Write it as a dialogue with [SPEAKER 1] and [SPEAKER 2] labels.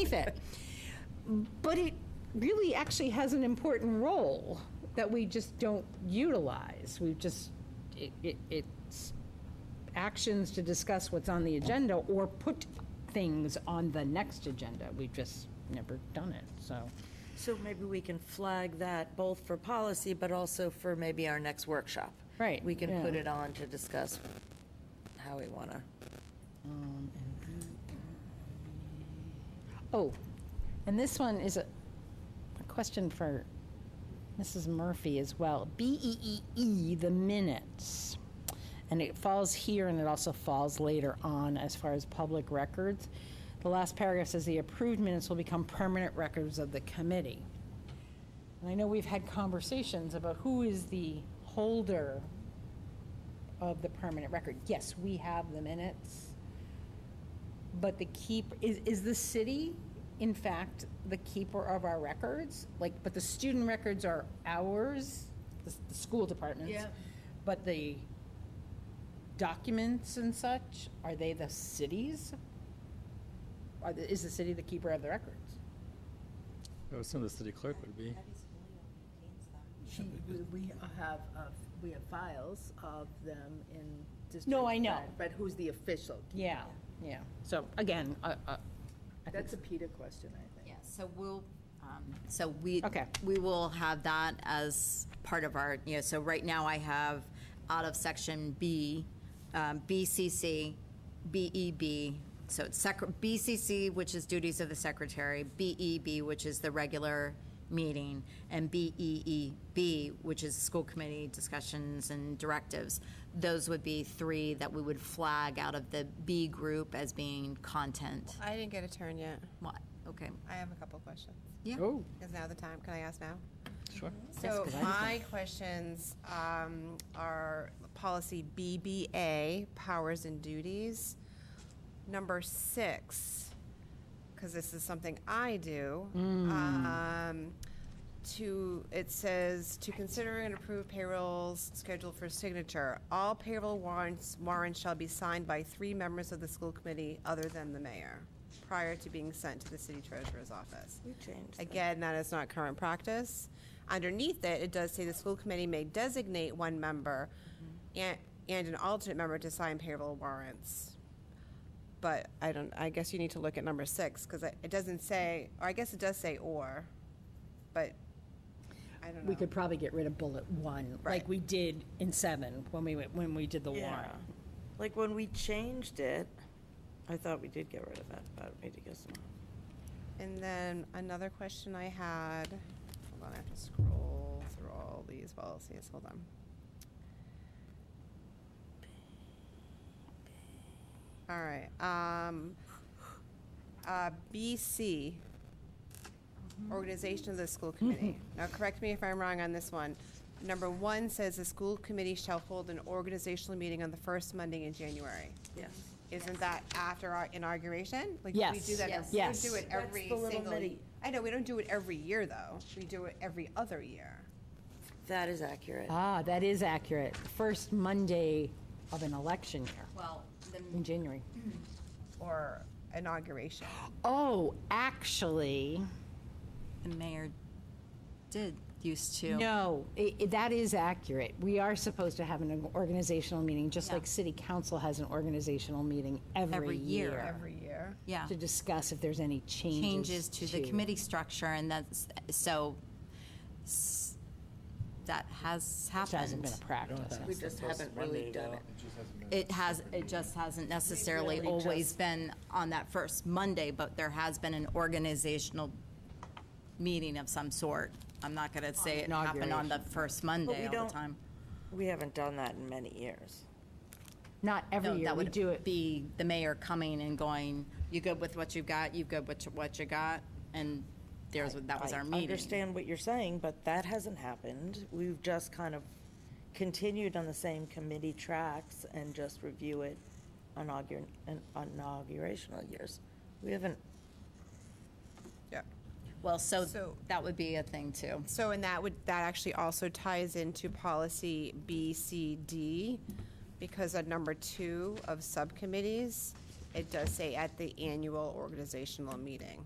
[SPEAKER 1] fit. But it really actually has an important role that we just don't utilize. We've just, it, it, it's actions to discuss what's on the agenda or put things on the next agenda. We've just never done it, so.
[SPEAKER 2] So maybe we can flag that both for policy, but also for maybe our next workshop.
[SPEAKER 1] Right,
[SPEAKER 2] We can
[SPEAKER 1] yeah.
[SPEAKER 2] put it on to discuss how we want to.
[SPEAKER 1] Oh, and this one is a, a question for Mrs. Murphy as well. B E E E, the minutes. And it falls here and it also falls later on as far as public records. The last paragraph says the approved minutes will become permanent records of the committee. And I know we've had conversations about who is the holder of the permanent record. Yes, we have the minutes. But the keep, is, is the city, in fact, the keeper of our records? Like, but the student records are ours, the, s- the school department's.
[SPEAKER 3] Yeah.
[SPEAKER 1] But the documents and such, are they the city's? Are, the- is the city the keeper of the records?
[SPEAKER 4] I would assume the city clerk would be.
[SPEAKER 3] She, we- we have, uh, we have files of them in district.
[SPEAKER 1] No, I know.
[SPEAKER 3] one, But who's the official?
[SPEAKER 1] Yeah, yeah. So again, uh, uh, I think
[SPEAKER 3] That's a Peter question, I think.
[SPEAKER 5] Yeah, so we'll, um, so we.
[SPEAKER 1] Okay.
[SPEAKER 5] We will have that as part of our, you know, so right now I have out of section B, um, BCC, BEB, E so it's sec, BCC, which is duties of the secretary, BEB, which is the regular meeting, and BEEB, which is school committee discussions and directives. Those would be three that we would flag out of the B group as being content.
[SPEAKER 6] I didn't get a turn yet.
[SPEAKER 5] What, okay,
[SPEAKER 6] I have a couple questions.
[SPEAKER 5] yeah.
[SPEAKER 6] Is now the time? Can I ask now?
[SPEAKER 4] Oh, Sure.
[SPEAKER 6] So my questions um, are policy BBA, powers and duties. Number six, because this is something I do. Um, to it says to consider and approve payrolls scheduled for signature. All payroll warrants warrants shall be signed by three members of the school committee other than the mayor prior to being sent to the city treasurer's office.
[SPEAKER 2] changed
[SPEAKER 6] Again, that is not current practice. Underneath it, it does say the school committee may designate one member
[SPEAKER 1] Mm-hmm.
[SPEAKER 6] and, and an alternate member to sign payroll warrants. But I don't, I guess you need to look at number six, because it it doesn't say, or I guess it does say or, but I don't know.
[SPEAKER 1] we could probably get rid of bullet one, like
[SPEAKER 6] Right.
[SPEAKER 1] we did in seven when we, went- when we did the
[SPEAKER 2] Yeah.
[SPEAKER 1] warrant.
[SPEAKER 2] Like when we changed it, I thought we did get rid of that, but we did get some.
[SPEAKER 6] And then another question I had, hold on, I have to scroll through all these policies, hold on. All right, um, uh, BC, organization of the school committee.
[SPEAKER 1] Mm-hmm.
[SPEAKER 6] Now, correct me if I'm wrong on this one. Number one says the school committee shall hold an organizational meeting on the first Monday in January.
[SPEAKER 2] Yes.
[SPEAKER 6] Isn't that after our inauguration? Like, We
[SPEAKER 1] Yes.
[SPEAKER 6] do that,
[SPEAKER 5] Yes.
[SPEAKER 6] we don't do
[SPEAKER 1] Yes.
[SPEAKER 6] it every
[SPEAKER 2] That's the little
[SPEAKER 6] single,
[SPEAKER 2] bitty-
[SPEAKER 6] I know, we don't do it every year, though. We do it every other year.
[SPEAKER 2] That is accurate.
[SPEAKER 1] Ah, that is accurate. First Monday of an election year
[SPEAKER 5] Well,
[SPEAKER 1] in
[SPEAKER 5] the,
[SPEAKER 1] January.
[SPEAKER 6] Or inauguration.
[SPEAKER 1] Oh, actually,
[SPEAKER 5] the mayor did used to.
[SPEAKER 1] no, i- i- that is accurate. We are supposed to have an organizational meeting, just
[SPEAKER 5] Yeah.
[SPEAKER 1] like city council has an organizational meeting every
[SPEAKER 5] Every year.
[SPEAKER 1] year
[SPEAKER 6] Every year.
[SPEAKER 5] Yeah,
[SPEAKER 1] to discuss if there's any changes
[SPEAKER 5] changes to the committee structure, and that's, so, s- that has
[SPEAKER 1] Which hasn't
[SPEAKER 5] happened.
[SPEAKER 1] been a practice.
[SPEAKER 2] We just haven't really done it.
[SPEAKER 5] It has, it just hasn't necessarily always been on that first Monday, but there has been an organizational meeting of some sort. I'm not gonna say it happened on the first Monday
[SPEAKER 2] we
[SPEAKER 5] all
[SPEAKER 2] don't-
[SPEAKER 5] the time.
[SPEAKER 2] We haven't done that in many years.
[SPEAKER 1] Not
[SPEAKER 5] No,
[SPEAKER 1] every year,
[SPEAKER 5] that
[SPEAKER 1] we
[SPEAKER 5] would
[SPEAKER 1] do it.
[SPEAKER 5] Be the mayor coming and going, you good with what you've got, you good with what you got, and there's, that was our
[SPEAKER 2] I
[SPEAKER 5] meeting.
[SPEAKER 2] understand what you're saying, but that hasn't happened. We've just kind of continued on the same committee tracks and just review it inaugural, inaugurational years. We haven't,
[SPEAKER 6] Yeah.
[SPEAKER 5] Well, so
[SPEAKER 6] So-
[SPEAKER 5] that would be a thing too.
[SPEAKER 6] So, and that would, that actually also ties into policy BCD, because at number two of subcommittees, it does say at the annual organizational meeting.